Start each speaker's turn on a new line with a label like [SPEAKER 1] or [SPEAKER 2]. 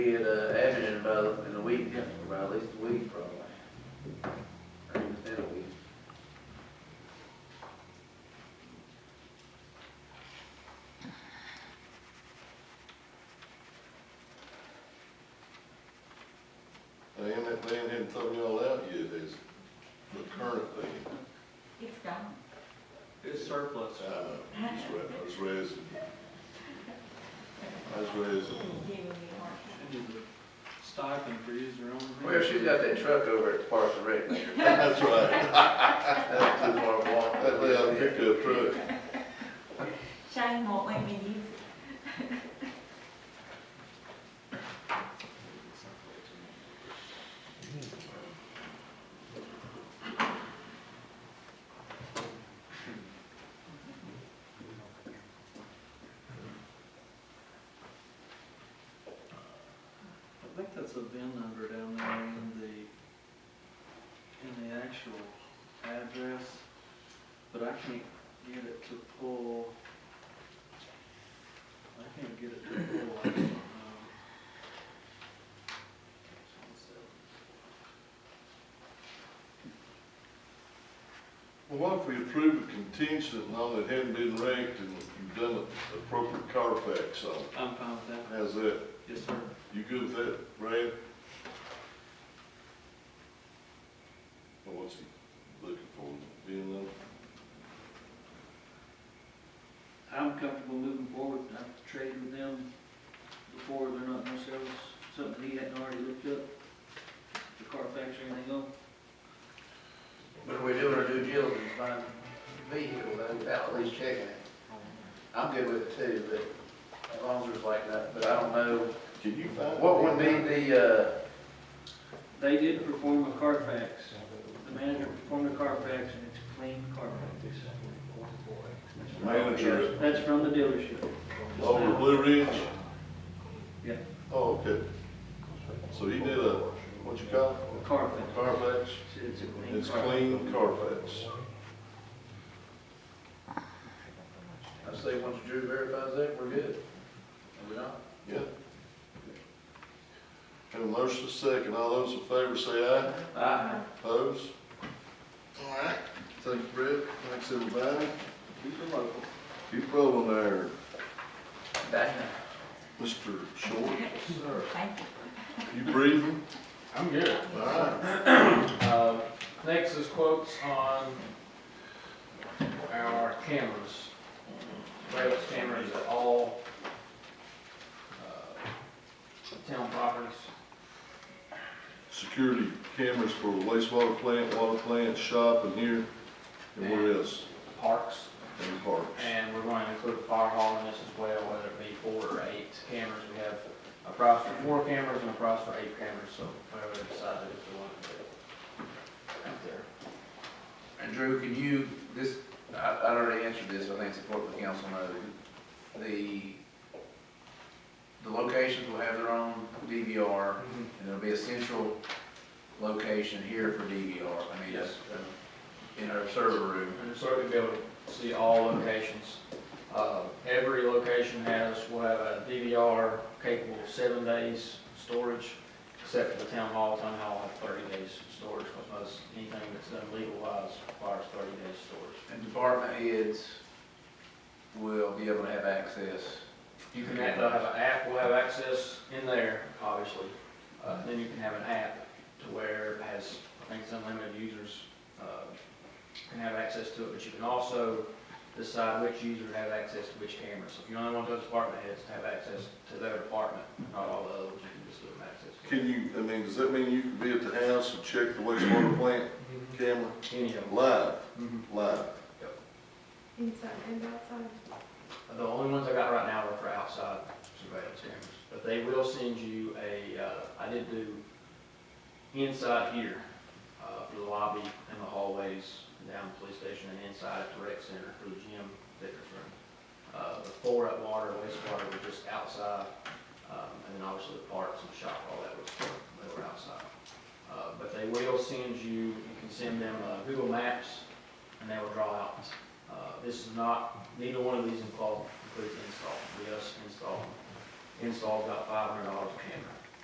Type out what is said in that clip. [SPEAKER 1] Get, uh, Abington about in a week, about at least a week probably. I mean, it's been a week.
[SPEAKER 2] They ain't, they ain't had something y'all out yet, is the current thing.
[SPEAKER 3] It's gone.
[SPEAKER 4] It's surplus.
[SPEAKER 2] Uh, I just read, I just read some. I just read some.
[SPEAKER 3] Giving me a heart attack.
[SPEAKER 4] She needs a Stipend for using her own.
[SPEAKER 1] Well, she's got that truck over at Parks and Rec.
[SPEAKER 2] That's right.
[SPEAKER 1] That's too far to walk. uh,
[SPEAKER 2] That little pickup truck.
[SPEAKER 3] Shane won't let me use it.
[SPEAKER 4] I think that's a VIN number down there in the, in the actual address, but I can't get it to pull. I can't get it to pull, I don't know.
[SPEAKER 2] Well, what if we approve a contingent and all that hadn't been ranked and you've done an appropriate Carfax on it?
[SPEAKER 4] I'm fine with that,
[SPEAKER 2] How's that?
[SPEAKER 4] yes, sir.
[SPEAKER 2] You good with that, Brad? Or what's he looking for, being number?
[SPEAKER 5] I'm comfortable moving forward, and I've traded with them before, they're not themselves, something he hadn't already looked up, the Carfax or anything else.
[SPEAKER 1] But we're doing our due diligence, buying a vehicle though, without at least checking it. I'm good with it too, but as long as there's like that, but I don't know.
[SPEAKER 2] Can you find?
[SPEAKER 1] What would be the, uh,
[SPEAKER 5] They did perform a Carfax, the manager performed a Carfax, and it's a clean Carfax.
[SPEAKER 2] Manager
[SPEAKER 5] That's from the dealership.
[SPEAKER 2] at Lower Oh, Blue Ridge?
[SPEAKER 5] Yeah,
[SPEAKER 2] Oh, okay. So he did a, what you call it,
[SPEAKER 5] Carfax,
[SPEAKER 2] Carfax?
[SPEAKER 5] it's a clean
[SPEAKER 2] It's
[SPEAKER 5] Carfax.
[SPEAKER 2] clean Carfax.
[SPEAKER 1] I say, once Drew verifies that, we're good. Are we not?
[SPEAKER 2] Yeah. Have a motion to second. All those in favor say aye.
[SPEAKER 1] Aye.
[SPEAKER 2] Opposed? All right. Thanks, Brett. Thanks, everybody.
[SPEAKER 5] Keep it local.
[SPEAKER 2] Keep rolling there,
[SPEAKER 1] Damn.
[SPEAKER 2] Mr. Short.
[SPEAKER 3] Thank you.
[SPEAKER 2] You breathing?
[SPEAKER 6] I'm good.
[SPEAKER 2] All right.
[SPEAKER 6] Uh, Next is quotes on our cameras. Rails cameras at all uh, town properties.
[SPEAKER 2] Security cameras for wastewater plant, water plant, shop, and here, and where else?
[SPEAKER 6] Parks.
[SPEAKER 2] And parks.
[SPEAKER 6] And we're going to include the fire hall in this as well, whether it be four or eight cameras. We have a price for four cameras and a price for eight cameras, so whatever they decide to do, if they want to do it. Out there.
[SPEAKER 1] And Drew, can you, this, I, I already answered this, I think it's important the council know. The, the locations will have their own DVR, and there'll be a central location here for DVR. I mean, uh,
[SPEAKER 6] Yes.
[SPEAKER 1] in our server room.
[SPEAKER 6] And so we'll be able to see all locations. Uh, Every location has, will have a DVR capable of seven days storage, except for the town hall. Town hall will have thirty days storage, because most, anything that's done legal wise requires thirty days storage.
[SPEAKER 1] And department heads will be able to have access.
[SPEAKER 6] You can, have- they'll have an app, we'll have access in there, obviously. Uh, Then you can have an app to where it has, I think it's unlimited users uh, can have access to it, but you can also decide which user have access to which camera. So if you only want those department heads to have access to their department, not all the others, you can just give them access to
[SPEAKER 2] Can you, I mean, does that mean you can be at the house and check the wastewater plant camera?
[SPEAKER 6] any of them.
[SPEAKER 2] Live,
[SPEAKER 6] Mhm.
[SPEAKER 2] live.
[SPEAKER 7] Inside and outside.
[SPEAKER 6] The only ones I got right now are for outside surveillance cameras, but they will send you a, uh, I did do inside here, uh, for the lobby and the hallways, down the police station and inside at the rec center for the gym fitness room. Uh, the four at water, and wastewater were just outside, um, and then obviously the parks and the shop, all that was, they were outside. Uh, but they will send you, you can send them, uh, Google Maps, and they will draw out. Uh, this is not Neither one of these involve, includes install, we us install, install about five hundred dollars a camera.